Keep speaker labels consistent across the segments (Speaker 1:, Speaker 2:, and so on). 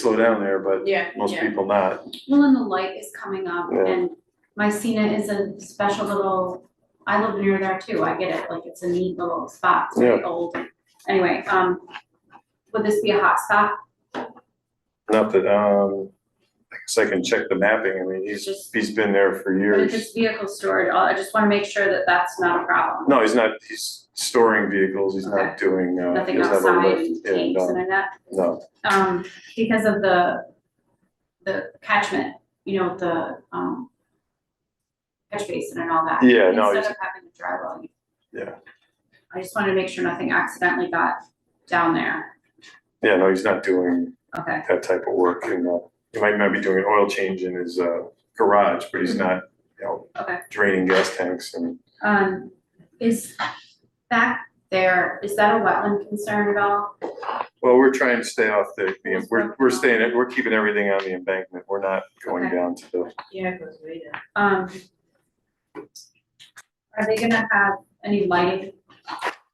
Speaker 1: slow down there, but
Speaker 2: Yeah,
Speaker 1: most
Speaker 2: yeah.
Speaker 1: people not.
Speaker 3: Well, and the light is coming up
Speaker 1: Yeah.
Speaker 3: and Mycena is a special little, I live near there too, I get it, like it's a neat little spot, it's very old. Anyway, um, would this be a hot spot?
Speaker 1: Not that, um, I guess I can check the mapping. I mean, he's, he's been there for
Speaker 3: But
Speaker 1: years.
Speaker 3: if it's vehicle storage, I just wanna make sure that that's not a problem.
Speaker 1: No, he's not, he's storing vehicles, he's not doing, uh, he
Speaker 3: Nothing
Speaker 1: doesn't have a
Speaker 3: outside
Speaker 1: lift.
Speaker 3: and
Speaker 1: Yeah,
Speaker 3: tanks
Speaker 1: no,
Speaker 3: and all that,
Speaker 1: No,
Speaker 3: um, because of the, the catchment, you know, the, um, catch basin and all that.
Speaker 1: Yeah, no,
Speaker 3: Instead
Speaker 1: it's-
Speaker 3: of having to drive all. you-
Speaker 1: Yeah.
Speaker 3: I just wanted to make sure nothing accidentally got down there.
Speaker 1: yeah, no, he's not doing
Speaker 3: Okay,
Speaker 1: that type of work and, uh, he might not be doing an oil change in his, uh, garage, but he's
Speaker 3: Mm-hmm.
Speaker 1: not, you know,
Speaker 3: okay.
Speaker 1: draining gas tanks and,
Speaker 3: Um, is back there, is that a wetland concern at all?
Speaker 1: well, we're trying to stay off the, the- we're, we're staying, at- we're keeping everything on the embankment. We're not going
Speaker 3: Okay.
Speaker 1: down to the,
Speaker 2: Yeah, it goes way down.
Speaker 3: Um, are they gonna have any lighting?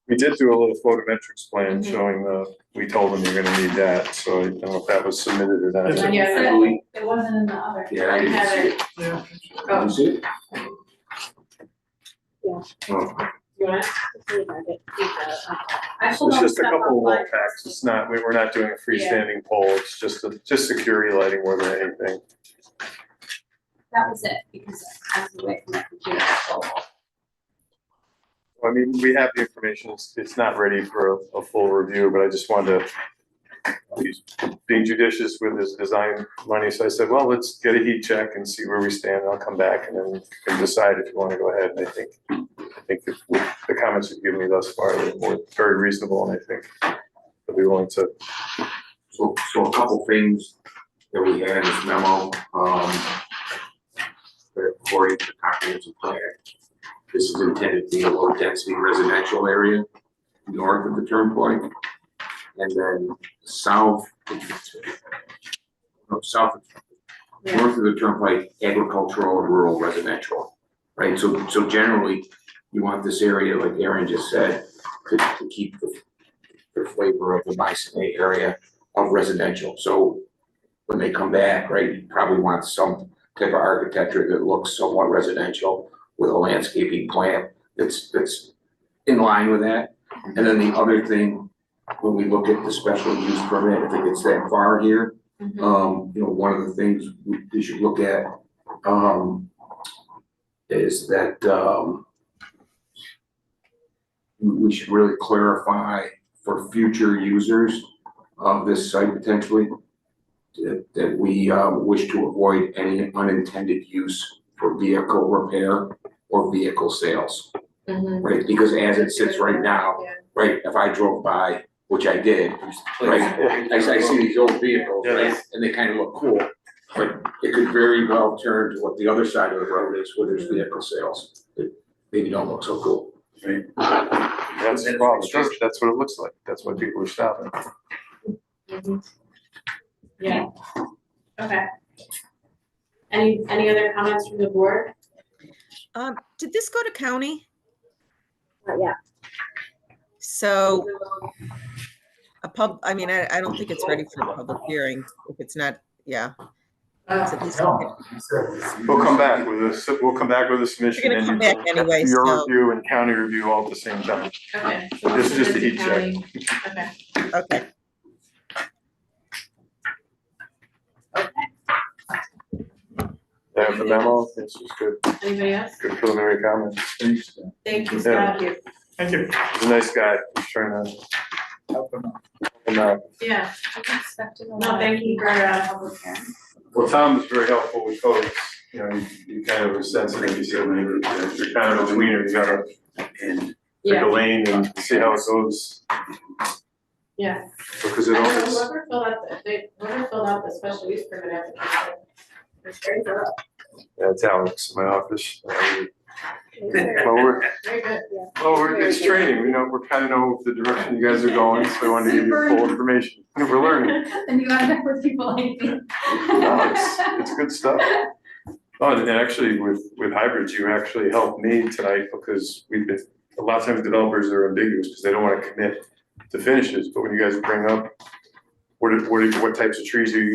Speaker 1: we did do a little photometrics plan
Speaker 2: Mm-hmm.
Speaker 3: Mhm.
Speaker 1: showing the, we told them you're gonna need that, so I don't know if that was submitted or
Speaker 4: That's
Speaker 1: not.
Speaker 4: it.
Speaker 2: Yeah,
Speaker 3: Said
Speaker 2: we-
Speaker 3: It wasn't in the other.
Speaker 4: Yeah, I
Speaker 2: I
Speaker 4: didn't
Speaker 2: have
Speaker 4: see
Speaker 2: it.
Speaker 4: it. Yeah.
Speaker 2: Oh.
Speaker 4: You see it?
Speaker 2: Yeah.
Speaker 4: Oh,
Speaker 2: You want it?
Speaker 3: I pulled
Speaker 1: It's
Speaker 3: all the
Speaker 1: just a
Speaker 3: stuff
Speaker 1: couple wall
Speaker 3: online.
Speaker 1: packs, it's not, we, we're not doing a
Speaker 2: Yeah.
Speaker 1: freestanding pole, it's just, a- just security lighting more than anything.
Speaker 3: That was it, because I was away from my computer.
Speaker 1: I mean, we have the information, it's, it's not ready for a, a full review, but I just wanted to he's being judicious with his design money, so I said, well, let's get a heat check and see where we stand, and I'll come back and then you can decide if you wanna go ahead, and I think, I think that with the comments you've given me thus far are more- very reasonable, and I think that we want to,
Speaker 4: So, so a couple things that we had in this memo, um, that according to the comprehensive plan, this is intended to be a low-density residential area north of the turnpike. And then south, no, south, north of the turnpike, agricultural and rural residential. Right, so, so generally, you want this area, like Aaron just said, to, to keep the, the flavor of the Mycenae area of residential, so when they come back, right, you probably want some type of architecture that looks somewhat residential with a landscaping plan that's, that's in line with that. And then the other thing, when we look at the special use permit, I think it's that far here,
Speaker 2: Mm-hmm.
Speaker 4: um, you know, one of the things we we should look at, um, is that, um, we we should really clarify for future users of this site potentially, that, that we, uh, wish to avoid any unintended use for vehicle repair or vehicle sales,
Speaker 2: Mm-hmm.
Speaker 4: right? Because as it sits right now,
Speaker 2: Yeah.
Speaker 4: right, if I drove by, which I did, right? I, I see these old vehicles, right, and they kind of look cool, but it could very well turn to what the other side of the road is, where there's vehicle sales. that Maybe don't look so cool.
Speaker 1: that's the problem, That's- that's what it looks like, that's why people are stopping.
Speaker 2: Yeah. Okay. Any, any other comments from the board?
Speaker 5: Um, did this go to county?
Speaker 2: Yeah.
Speaker 5: So a pub, I mean, I, I don't think it's ready for a public hearing if it's not, yeah.
Speaker 2: Uh,
Speaker 5: so please don't get-
Speaker 1: We'll come back with this, we'll come back with a submission.
Speaker 5: You're gonna
Speaker 1: and
Speaker 5: come back anyway,
Speaker 1: Your
Speaker 5: so-
Speaker 1: review and county review all at the same time.
Speaker 2: Okay.
Speaker 1: This is just a heat check.
Speaker 2: Okay.
Speaker 5: Okay,
Speaker 1: I have the memo, this is good,
Speaker 2: Anybody else?
Speaker 1: good preliminary comment.
Speaker 2: Thank you,
Speaker 1: Yeah.
Speaker 2: Scott.
Speaker 1: Thank you. He's a nice guy, he's trying to. Help him out.
Speaker 2: Yeah, no,
Speaker 3: No,
Speaker 2: thank you for, uh,
Speaker 1: Well, Tom was very helpful with photos, you know, you, you kind of were sensitive, you said, "Man, you're- you're kind of a tweener, you gotta pick
Speaker 2: yeah,
Speaker 1: a lane and see how it goes,
Speaker 2: yeah.
Speaker 1: because
Speaker 2: I
Speaker 1: it
Speaker 2: know
Speaker 1: always,
Speaker 2: Whoever filled out, the- they, whoever filled out the special use permit application. was very thorough.
Speaker 1: yeah, it's Alex in my office. Uh,
Speaker 2: Very
Speaker 1: Well, we're,
Speaker 2: good, yeah.
Speaker 1: well, we're, it's training, we know, we kind of know the direction you guys are going, so I wanted to give you full information, we're learning.
Speaker 3: And you end up with people like me.
Speaker 1: No, it's, it's good stuff. Oh, and actually with, with hybrids, you actually helped me tonight because we've been, a lot of times developers are ambiguous because they don't wanna commit to finishes, but when you guys bring up what, are- what, are- what types of trees are you